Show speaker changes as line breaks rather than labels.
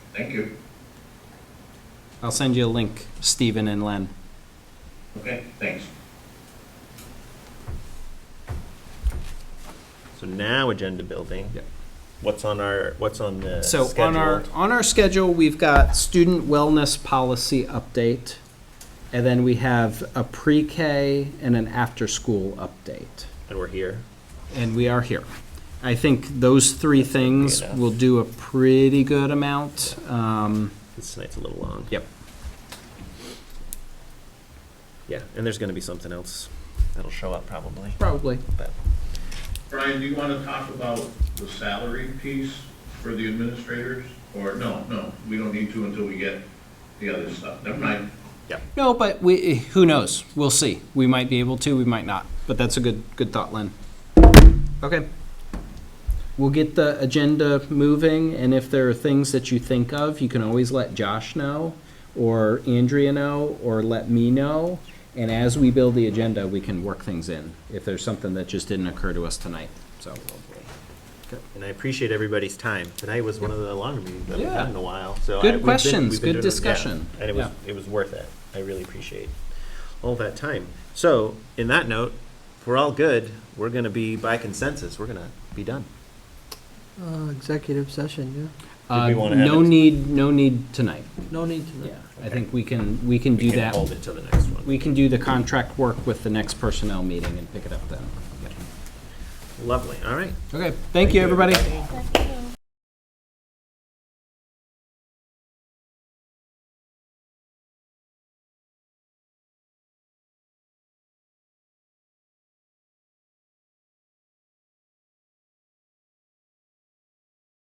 Thank you.
I'll send you a link, Stephen and Len.
Okay, thanks.
So now agenda building.
Yep.
What's on our, what's on the
So on our,
scheduled?
on our schedule, we've got student wellness policy update, and then we have a pre-K and an after-school update.
And we're here.
and we are here. I think those three things
enough.
will do a pretty good amount. Um,
This night's a little long.
Yep.
Yeah, and there's gonna be something else that'll show up probably.
Probably.
Brian, do you want to talk about the salary piece for the administrators? Or, no, no, we don't need to until we get the other stuff. Never mind.
No, but we, who knows? We'll see. We might be able to, we might not. But that's a good, good thought, Len. Okay. We'll get the agenda moving, and if there are things that you think of, you can always let Josh know, or Andrea know, or let me know. And as we build the agenda, we can work things in, if there's something that just didn't occur to us tonight, so.
And I appreciate everybody's time. Tonight was one of the longer meetings that we've
Yeah.
had in a while, so. I-
Good
we've been-
questions,
we've been
good
doing it- yeah.
discussion.
And it was, it was worth it. I really appreciate all that time. So, in that note, if we're all good, we're gonna be, by consensus, we're gonna be done.
Uh, executive session,
Uh,
we wanna have
No
it-
need, no need tonight,
yeah. No need to.
yeah. I think we can, we can
We
do
can
that.
Hold it till the next one.
We can do the contract work with the next personnel meeting and pick it up then.
Lovely, all right.
Okay, thank you, everybody.
Second.